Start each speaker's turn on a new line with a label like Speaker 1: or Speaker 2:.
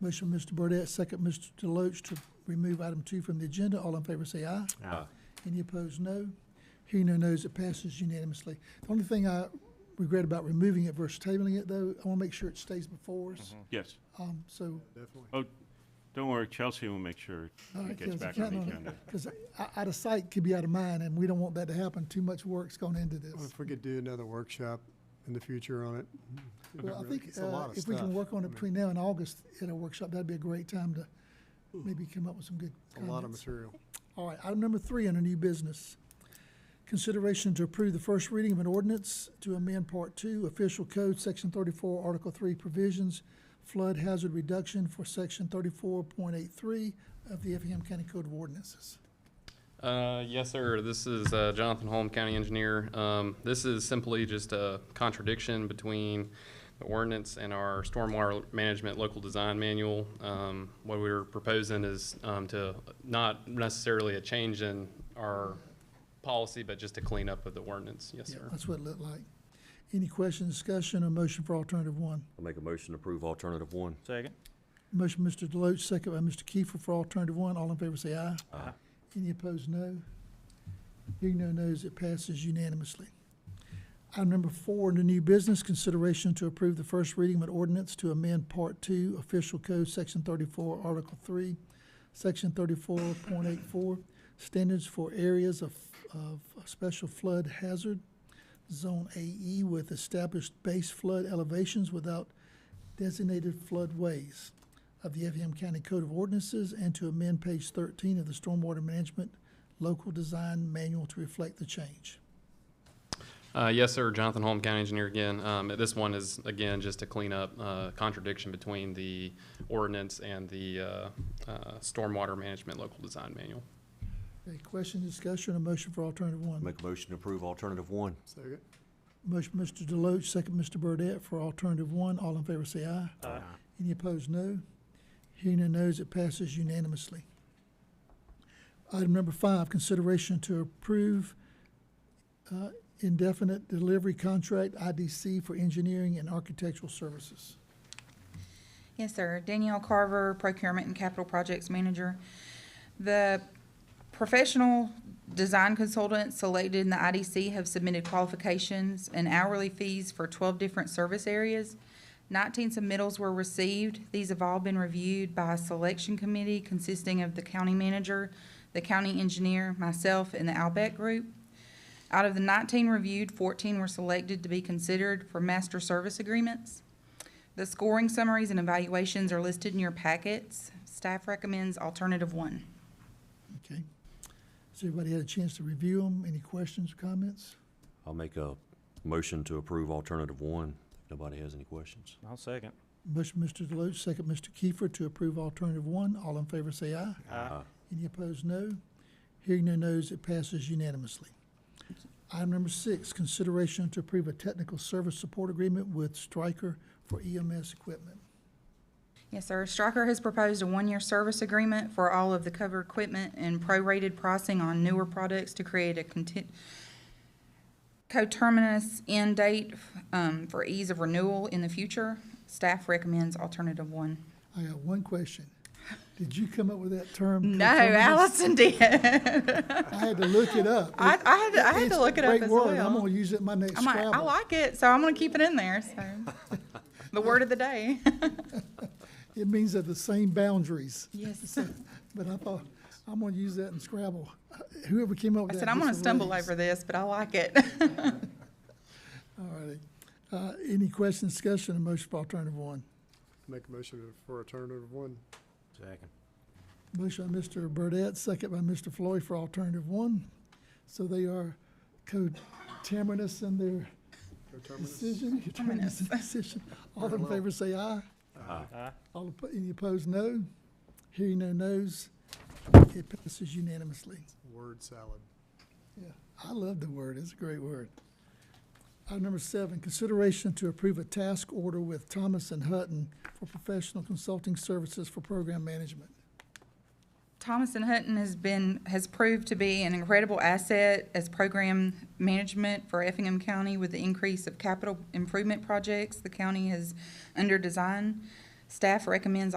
Speaker 1: Motion, Mr. Burdette, second, Mr. Deloach, to remove item two from the agenda. All in favor, say aye.
Speaker 2: Aye.
Speaker 1: Any opposed, no. Hearing no no's, it passes unanimously. The only thing I regret about removing it versus tabling it, though, I want to make sure it stays before us.
Speaker 2: Yes.
Speaker 1: Um, so,
Speaker 3: Definitely.
Speaker 2: Oh, don't worry, Chelsea will make sure
Speaker 1: all
Speaker 2: it
Speaker 1: right,
Speaker 2: gets
Speaker 1: Council,
Speaker 2: back on
Speaker 1: count
Speaker 2: the
Speaker 1: on
Speaker 2: agenda.
Speaker 1: Because out of sight could be out of mind, and we don't want that to happen. Too much work's gone into
Speaker 3: Well,
Speaker 1: this.
Speaker 3: If we could do another workshop in the future on it. it
Speaker 1: Well, I
Speaker 3: really-
Speaker 1: think
Speaker 3: it's a lot
Speaker 1: uh,
Speaker 3: of
Speaker 1: if we can
Speaker 3: stuff.
Speaker 1: work on
Speaker 3: I
Speaker 1: it
Speaker 3: mean,
Speaker 1: between now and August at a workshop, that'd be a great time to maybe come up with some good
Speaker 3: A lot of
Speaker 1: comments.
Speaker 3: material.
Speaker 1: All right, item number three under new business. Consideration to approve the first reading of an ordinance to amend Part Two, Official Code, Section thirty-four, Article Three Provisions, Flood Hazard Reduction for Section thirty-four point eight-three of the Effingham County Code of Ordinances.
Speaker 4: Uh, yes, sir. This is uh, Jonathan Holm, county engineer. Um, this is simply just a contradiction between the ordinance and our stormwater management local design manual. Um, what we're proposing is um, to not necessarily a change in our policy, but just a cleanup of the ordinance. Yes,
Speaker 1: Yeah,
Speaker 4: sir.
Speaker 1: That's what it looked like. Any questions, discussion, or motion for alternative one?
Speaker 5: I'll make a motion to approve alternative one.
Speaker 6: Second.
Speaker 1: Motion, Mr. Deloach, second by Mr. Kiefer for alternative one. All in favor, say aye.
Speaker 5: Aye.
Speaker 1: Any opposed, no. Hearing no no's, it passes unanimously. Item number four, under new business, consideration to approve the first reading of an ordinance to amend Part Two, Official Code, Section thirty-four, Article Three, Section thirty-four point eight-four, Standards for Areas of, of Special Flood Hazard, Zone AE with established base flood elevations without designated floodways of the Effingham County Code of Ordinances and to amend page thirteen of the Stormwater Management Local Design Manual to reflect the change.
Speaker 4: Uh, yes, sir. Jonathan Holm, county engineer again. Um, this one is again just to clean up uh, contradiction between the ordinance and the uh, uh, stormwater management local design manual.
Speaker 1: Okay, question, discussion, or motion for alternative one?
Speaker 5: Make a motion to approve alternative one.
Speaker 3: Second.
Speaker 1: Motion, Mr. Deloach, second, Mr. Burdette, for alternative one. All in favor, say aye.
Speaker 6: Aye.
Speaker 1: Any opposed, no. Hearing no no's, it passes unanimously. Item number five, consideration to approve uh, indefinite delivery contract IDC for engineering and architectural services.
Speaker 7: Yes, sir. Danielle Carver, Procurement and Capital Projects Manager. The professional design consultants selected in the IDC have submitted qualifications and hourly fees for twelve different service areas. Nineteen submittals were received. These have all been reviewed by a selection committee consisting of the county manager, the county engineer, myself, and the Albeck Group. Out of the nineteen reviewed, fourteen were selected to be considered for master service agreements. The scoring summaries and evaluations are listed in your packets. Staff recommends alternative one.
Speaker 1: Okay. Has everybody had a chance to review them? Any questions or comments?
Speaker 5: I'll make a motion to approve alternative one. If Nobody has any questions?
Speaker 6: I'll second.
Speaker 1: Motion, Mr. Deloach, second, Mr. Kiefer, to approve alternative one. All in favor, say aye.
Speaker 6: Aye.
Speaker 1: Any opposed, no. Hearing no nos, it passes unanimously. Item number six, consideration to approve a technical service support agreement with Stryker for EMS equipment.
Speaker 7: Yes, sir. Stryker has proposed a one-year service agreement for all of the covered equipment and prorated pricing on newer products to create a content, coterminous end date, um, for ease of renewal in the future. Staff recommends alternative one.
Speaker 1: I got one question. Did you come up with that term?
Speaker 7: No,
Speaker 1: coterminous?
Speaker 7: Allison did. I,
Speaker 1: I had to look it up.
Speaker 7: I had, to- I had
Speaker 1: It's a
Speaker 7: to look it up
Speaker 1: great
Speaker 7: as
Speaker 1: word.
Speaker 7: well.
Speaker 1: I'm gonna use it in my next
Speaker 7: I'm like, I
Speaker 1: Scrabble.
Speaker 7: like it, so I'm gonna keep it in there, so. The word of the day.
Speaker 1: It means they're the same boundaries.
Speaker 7: Yes.
Speaker 1: But I thought, I'm gonna use that in Scrabble. Whoever came up with
Speaker 7: I
Speaker 1: that.
Speaker 7: said, I'm
Speaker 1: gets
Speaker 7: gonna
Speaker 1: a
Speaker 7: stumble
Speaker 1: raise."
Speaker 7: over this, but I like it.
Speaker 1: All righty. Uh, any questions, discussion, or motion for alternative one?
Speaker 3: Make a motion for alternative one.
Speaker 2: Second.
Speaker 1: Motion by Mr. Burdette, second by Mr. Floyd for alternative one. So they are coterminous in their
Speaker 3: Coterminous.
Speaker 1: decision, coterminous in decision. All in favor, say aye.
Speaker 6: Aye.
Speaker 1: All, oppo- any opposed, no. Hearing no nos, it passes unanimously.
Speaker 3: Word salad.
Speaker 1: Yeah, I love the word, it's a great word. Item number seven, consideration to approve a task order with Thomas and Hutton for professional consulting services for program management.
Speaker 7: Thomas and Hutton has been, has proved to be an incredible asset as program management for Effingham County with the increase of capital improvement projects the county has under design. Staff recommends